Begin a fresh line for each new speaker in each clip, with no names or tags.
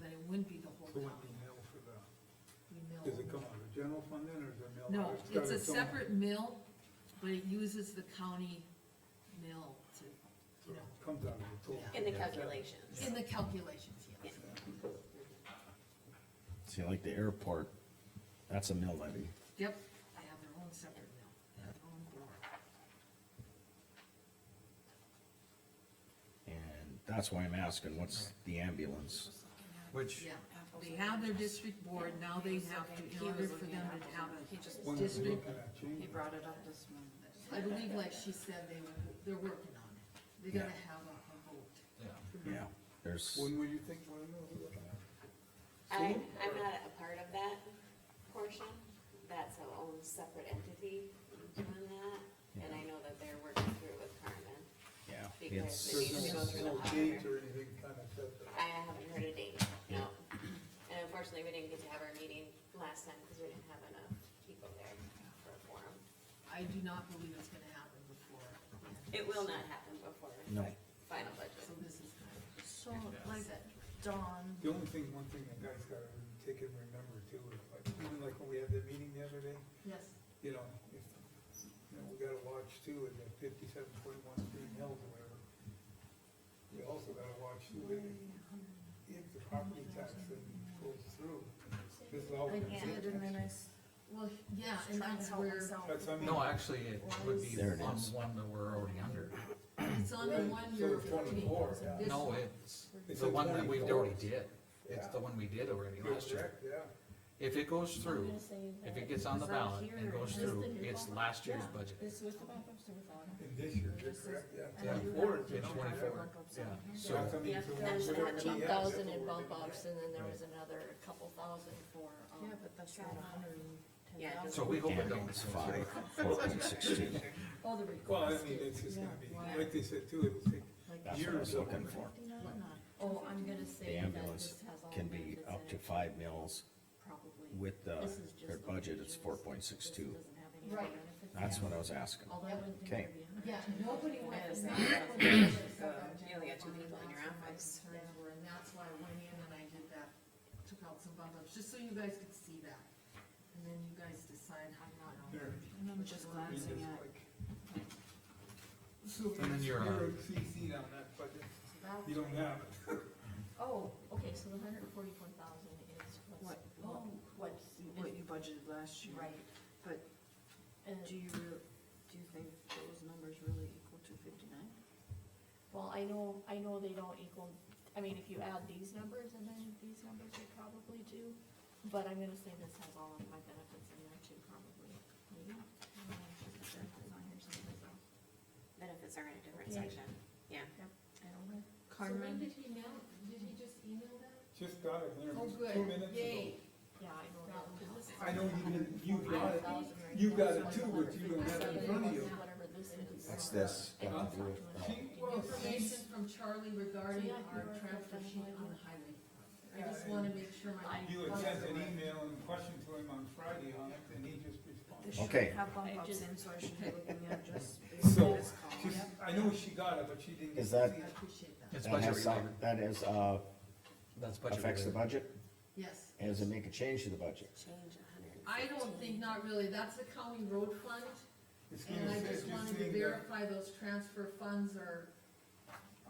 then it wouldn't be the whole
So what do
county.
you mill for the,
We
does
mill.
it come out of the general fund then, or is it mill?
No,
got
it's a
own-
separate mill, but it uses the county mill to,
so it Comes out of the total.
in the calculations.
in the calculations, yes.
See, like the airport, that's a mill levy.
Yep, they have their own separate mill, they have their own board.
And that's why I'm asking, what's the ambulance?
Which,
Yeah, they have their district board, now they have to, in order for them to have
He
a,
just,
When we're
District-
looking at
he
changing,
brought it up this morning.
I believe like she said, they, were- they're working on it. They're gonna have a, a vote.
yeah,
Yeah. There's,
when will you think, when will you look at?
I, I'm not a part of that portion, that's a own separate entity doing that, and I know that they're working through it with Carmen.
yeah,
Because
it's,
they need to go
There's
through the
no, no
auditor.
date or anything kind of set there.
I haven't heard a date, no. And unfortunately, we didn't get to have our meeting last time because we didn't have enough people there for a forum.
I do not believe it's gonna happen before. the end.
It will not happen before
no,
final budget.
So this is kind
So
of
like
set.
Dawn,
The only thing, one thing that guys gotta take and remember too, is like, even like when we had the meeting the other day,
Yes,
you know, if, you know, we gotta watch too, and the fifty-seven point one being held or whatever. We also gotta watch too, if, if the property tax thing goes through, this is all.
I did and then I s-
well, yeah,
was
and
trying to
that's
help
where,
myself.
That's, I mean.
no, actually, it would be
There it
on
is.
one that we're already under.
it's on the
Right,
one
so
you're.
it's 24, yeah.
This
No,
one.
it's
It's
the
in
one that we
24.
already did, it's the one we did already
You're
last year.
correct, yeah.
If it goes through, if it gets on the
It's out
ballot and
here.
goes
Just
through,
the new
it's
one.
last year's
Yeah.
budget.
This was the backups or without them?
And this year, you're
This is-
correct, yeah.
and I do have
24,
the
it's
backups on
24,
here.
yeah. So-
That's, I mean, so whatever
There's
we
fourteen
have,
thousand
that's
in
what we're
bump
gonna
ups,
get.
and then there was another couple thousand for, um.
Yeah, but that's not a hundred and ten
Yeah, it
thousand.
So we hope it don't.
ambulance, five, fourteen, sixteen,
Oh, the
Well, I
request.
mean, it's just gonna
Yeah.
be, like they said too, it'll take
that's what I
years
was
of.
looking for.
Oh, I'm gonna
The
say that
ambulance
this has all.
can be
that
up
is
to
in it,
five mills
Probably.
with the,
This is just
their
the
budget, it's
wages.
four point six
This
two.
doesn't have any other
Right.
benefits.
That's what I was asking.
Although I wouldn't think
Okay.
there'd be a
Yeah,
hundred and ten
nobody
thousand.
went.
Yeah,
that's
it's
not
not-
what we did, that's
You only got two people in your
what my
office.
concerns were, And that's why I went in and I did that, took out some bump ups, just so you guys could see that. And then you guys decide how you want to.
There.
And I'm just glancing at
So
And then you're, uh,
you're CC'd on that, but
So that's
you don't
right.
have it.
Oh, okay, so the hundred and forty-four thousand is
what,
what's,
what,
what's,
what you budgeted last year.
right,
But
and,
do you, real- do you think those numbers really equal to fifty-nine?
well, I know, I know they don't equal, I mean, if you add these numbers and then these numbers, they probably do, but I'm gonna say this has all of my benefits in there too, probably, maybe. I don't know if it's the benefits on here somewhere, so,
Benefits are in a different
Yeah.
section, yeah.
I don't know.
did he mail, did he just email that?
Just got it there
Oh,
just
good.
two minutes ago.
Yay.
Yeah, I know that, 'cause this is.
I know you didn't, you got it,
100,000 right
you
now,
got
so
it
it's
too, but you don't have it in front of you.
150,000, Whatever this is.
That's this.
And
Huh?
it's up to
uh,
us.
She, well,
Information
she's,
from Charlie regarding
So, yeah,
our
you were
transfer
correct.
sheet on the highway. I
Yeah,
just
and
wanna make sure my.
you had sent an email and question to him on Friday on it, and he just responded.
This should
Okay.
Have bump
I
ups
just-
in, so I should be looking at just.
So,
this column.
she's, I know she got it, but she didn't.
Is that-
I
see it.
appreciate that,
It's
That
budget
has,
related,
some- that is, uh,
that's budget
affects the
related.
budget,
yes.
and does it make a change to the budget?
Change a hundred. and
I don't think, not really, that's the county road fund,
It's gonna
and I
say-
just wanted to
saying that
verify those transfer funds are,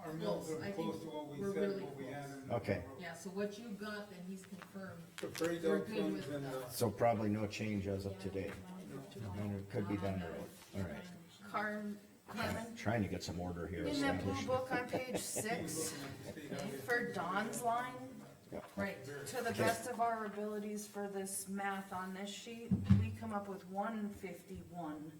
Our mills
close.
are
I
close
think
to what we
we're
said,
really
what we had in.
Okay.
yeah, so what you got, then he's confirmed.
The prairie
We're
dog
good
funds
with
and uh, the.
that.
So probably no change as of today, and it could be done early, all right.
Carm, Carmen,
Trying to get some order here
in that blue
established.
book on page
we're
six,
looking at the state highway.
for Dawn's line,
Right.
to the best of our abilities for this math on this sheet, we come up with one fifty-one,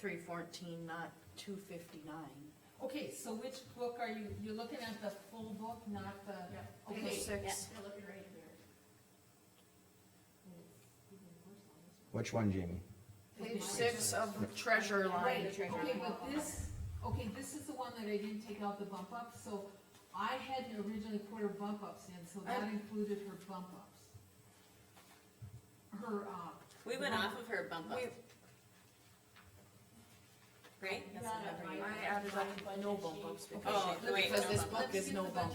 three fourteen, not two fifty-nine.
Okay, so which book are you, you're looking at the full book, not the,
Page
okay,
six,
You're looking right in there.
Which one, Jamie?
page six of the treasure
right,
line.
okay, but this, okay, this is the one that I didn't take out the bump up, so I had originally put her bump ups in, so that
I-
included her bump ups. Her, uh,
We went off of her bump up. Right? That's the number you-
I added up no bump ups because
Oh, wait,
because
no
this
bump
book is no bump